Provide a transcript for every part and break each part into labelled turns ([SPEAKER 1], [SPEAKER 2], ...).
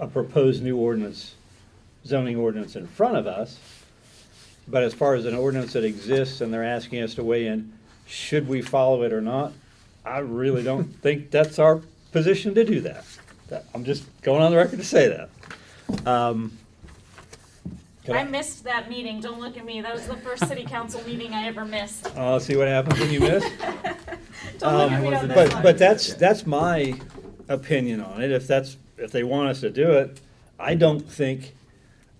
[SPEAKER 1] a proposed new ordinance, zoning ordinance in front of us. But as far as an ordinance that exists and they're asking us to weigh in, should we follow it or not? I really don't think that's our position to do that. That- I'm just going on the record to say that. Um, can
[SPEAKER 2] I missed that meeting, don't look at me, that was the first city council meeting I ever missed.
[SPEAKER 1] I'll Uh, see what happens when you miss.
[SPEAKER 2] Don't look at
[SPEAKER 1] Um,
[SPEAKER 2] me on this
[SPEAKER 1] But,
[SPEAKER 2] one.
[SPEAKER 1] but that's, that's my opinion on it, if that's, if they want us to do it, I don't think,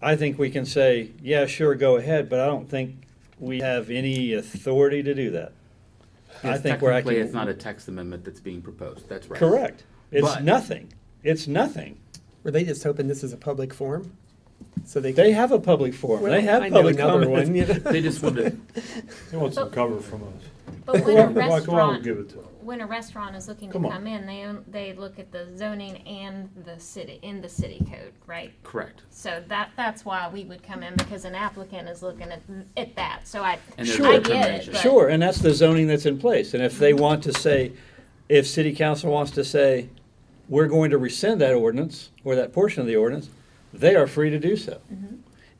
[SPEAKER 1] I think we can say, yeah, sure, go ahead, but I don't think we have any authority to do that. I
[SPEAKER 3] Yes,
[SPEAKER 1] think we're
[SPEAKER 3] technically,
[SPEAKER 1] acting.
[SPEAKER 3] It's not a text amendment that's being proposed, that's right.
[SPEAKER 1] Correct, it's
[SPEAKER 3] But-
[SPEAKER 1] nothing, it's nothing.
[SPEAKER 4] Were they just hoping this is a public forum? So they.
[SPEAKER 1] They
[SPEAKER 4] could-
[SPEAKER 1] have a public forum,
[SPEAKER 4] Well,
[SPEAKER 1] they
[SPEAKER 4] I
[SPEAKER 1] have
[SPEAKER 4] know
[SPEAKER 1] public
[SPEAKER 4] another one,
[SPEAKER 1] comments.
[SPEAKER 4] you know.
[SPEAKER 3] They just wanted,
[SPEAKER 5] He wants
[SPEAKER 2] Oh.
[SPEAKER 5] some cover from us.
[SPEAKER 6] But when a
[SPEAKER 5] Why come on,
[SPEAKER 6] restaurant,
[SPEAKER 5] give it to him?
[SPEAKER 6] when a restaurant is looking to
[SPEAKER 5] Come on.
[SPEAKER 6] come in, they, own- they look at the zoning and the city, in the city code, right?
[SPEAKER 3] correct.
[SPEAKER 6] So that, that's why we would come in, because an applicant is looking at, at that, so I, I
[SPEAKER 3] And there's
[SPEAKER 1] Sure.
[SPEAKER 6] get it,
[SPEAKER 3] information.
[SPEAKER 6] but.
[SPEAKER 1] Sure, and that's the zoning that's in place, and if they want to say, if city council wants to say, we're going to rescind that ordinance, or that portion of the ordinance, they are free to do so.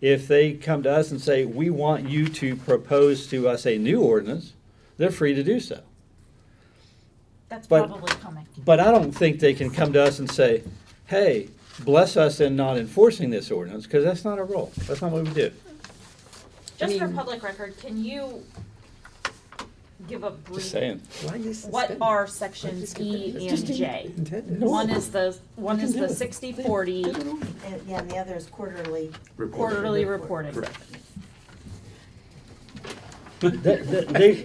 [SPEAKER 1] If they come to us and say, we want you to propose to us a new ordinance, they're free to do so.
[SPEAKER 2] That's
[SPEAKER 1] but-
[SPEAKER 2] probably coming.
[SPEAKER 1] But I don't think they can come to us and say, hey, bless us in not enforcing this ordinance, because that's not our role, that's not what we do.
[SPEAKER 2] Just for
[SPEAKER 4] mean-
[SPEAKER 2] public record, can you give a
[SPEAKER 1] Just
[SPEAKER 2] brief,
[SPEAKER 1] saying,
[SPEAKER 4] Why you suspend?
[SPEAKER 2] what are sections E and J?
[SPEAKER 4] Intended.
[SPEAKER 2] One is the, one
[SPEAKER 4] can
[SPEAKER 2] is
[SPEAKER 4] do
[SPEAKER 2] the
[SPEAKER 4] it.
[SPEAKER 2] sixty forty
[SPEAKER 7] And, yeah, and the other is quarterly.
[SPEAKER 3] Report.
[SPEAKER 2] quarterly reporting.
[SPEAKER 3] Correct.
[SPEAKER 1] They- They,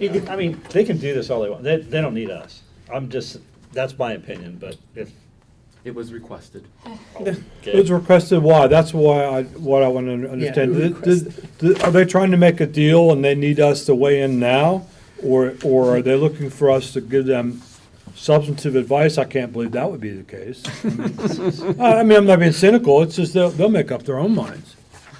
[SPEAKER 1] they- I mean, they can do this all they want. They, they don't need us. I'm just, that's my opinion, but if.
[SPEAKER 3] It was requested.
[SPEAKER 5] It's requested why, that's why I, what I want to understand.
[SPEAKER 4] who
[SPEAKER 5] Th- th-
[SPEAKER 4] requested?
[SPEAKER 5] th- Are they trying to make a deal and they need us to weigh in now? Or, or are they looking for us to give them substantive advice? I can't believe that would be the case. I I mean, I'm not being cynical, it's just they'll, they'll make up their own minds.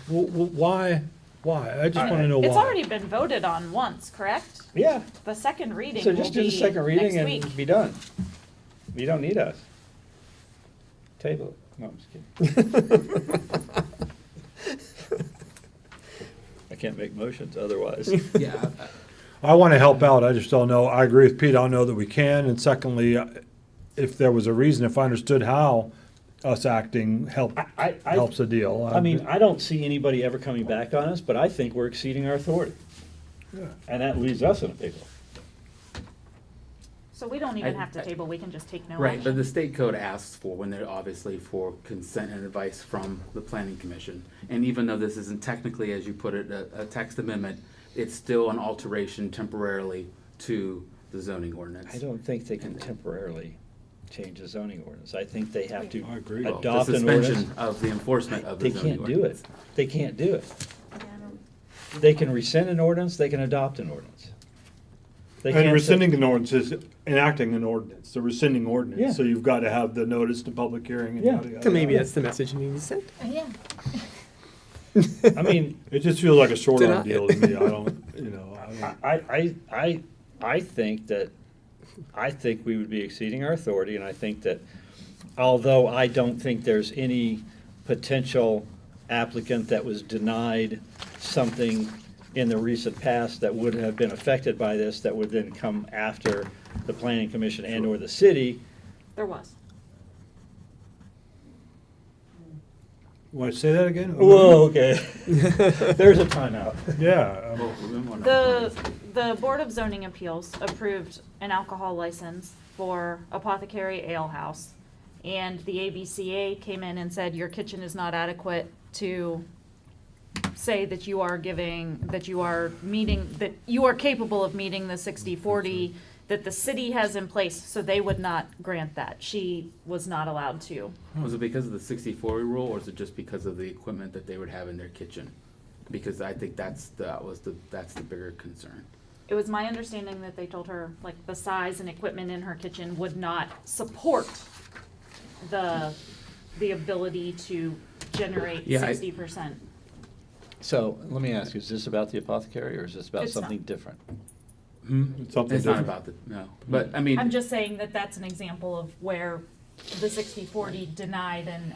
[SPEAKER 5] Wh- wh- Why, why? I just want to know why.
[SPEAKER 2] It's already been voted on once, correct?
[SPEAKER 1] Yeah,
[SPEAKER 2] The second reading
[SPEAKER 1] so just do the second
[SPEAKER 2] will be
[SPEAKER 1] reading
[SPEAKER 2] next
[SPEAKER 1] and
[SPEAKER 2] week.
[SPEAKER 1] be done. You don't need us. Table it. No, I'm just kidding. I can't make motions otherwise.
[SPEAKER 3] Yeah, I-
[SPEAKER 5] I want to help out. I just don't know. I agree with Pete. I don't know that we can. And secondly, uh, if there was a reason, if I understood how us acting help,
[SPEAKER 1] I- I- I-
[SPEAKER 5] helps a deal.
[SPEAKER 1] I mean, I don't see anybody ever coming back on us, but I think we're exceeding our authority.
[SPEAKER 5] Yeah.
[SPEAKER 1] And that leaves us in a pickle.
[SPEAKER 2] So we don't even
[SPEAKER 3] I-
[SPEAKER 2] have to table, we can just take no
[SPEAKER 3] right, but
[SPEAKER 2] action.
[SPEAKER 3] the state code asks for, when they're obviously for consent and advice from the planning commission. And even though this isn't technically, as you put it, a, a text amendment, it's still an alteration temporarily to the zoning ordinance.
[SPEAKER 1] I don't think they can temporarily change the zoning ordinance. I think they have to
[SPEAKER 5] I agree.
[SPEAKER 3] Well,
[SPEAKER 1] adopt
[SPEAKER 3] The
[SPEAKER 1] an ordinance.
[SPEAKER 3] suspension of the enforcement of
[SPEAKER 1] They
[SPEAKER 3] the zoning
[SPEAKER 1] can't do it.
[SPEAKER 3] ordinance.
[SPEAKER 1] They can't do it.
[SPEAKER 7] Yeah, I don't-
[SPEAKER 1] They can rescind an ordinance, they can adopt an ordinance. They
[SPEAKER 5] And
[SPEAKER 1] can't
[SPEAKER 5] rescinding
[SPEAKER 1] say-
[SPEAKER 5] an ordinance is enacting an ordinance, the rescinding
[SPEAKER 1] Yeah.
[SPEAKER 5] ordinance. So you've got to have the notice to public hearing. and
[SPEAKER 1] Yeah.
[SPEAKER 5] yada, yada,
[SPEAKER 4] So maybe
[SPEAKER 5] yada.
[SPEAKER 4] that's the message you need to send.
[SPEAKER 6] Yeah,
[SPEAKER 1] I mean,
[SPEAKER 5] It just feels like a short
[SPEAKER 4] Deny
[SPEAKER 5] on
[SPEAKER 4] it.
[SPEAKER 5] deal to me. I don't, you know, I don't.
[SPEAKER 1] I, I, I, I think that, I think we would be exceeding our authority, and I think that, although I don't think there's any potential applicant that was denied something in the recent past that would have been affected by this, that would then come after the planning commission and/or the city,
[SPEAKER 2] There was.
[SPEAKER 5] Want to say that again?
[SPEAKER 1] Whoa, okay. There's a timeout.
[SPEAKER 5] Yeah. um,
[SPEAKER 3] Well, we don't wanna-
[SPEAKER 2] The, the Board of Zoning Appeals approved an alcohol license for Apothecary Ale House. And the ABCA came in and said, your kitchen is not adequate to say that you are giving, that you are meeting, that you are capable of meeting the sixty-forty that the city has in place, so they would not grant that. She was not allowed to.
[SPEAKER 3] Was Oh, it because of the sixty-four rule, or is it just because of the equipment that they would have in their kitchen? Because I think that's, that was the, that's the bigger concern.
[SPEAKER 2] It was my understanding that they told her, like, the size and equipment in her kitchen would not support the, the ability to generate
[SPEAKER 3] Yeah, I-
[SPEAKER 2] sixty percent.
[SPEAKER 1] So let me ask, is this about the apothecary or is this about
[SPEAKER 2] It's not.
[SPEAKER 1] something different?
[SPEAKER 5] It's Hmm? something
[SPEAKER 3] It's not
[SPEAKER 5] different.
[SPEAKER 3] about the, no, but I mean.
[SPEAKER 2] I'm just saying that that's an example of where the sixty-forty denied an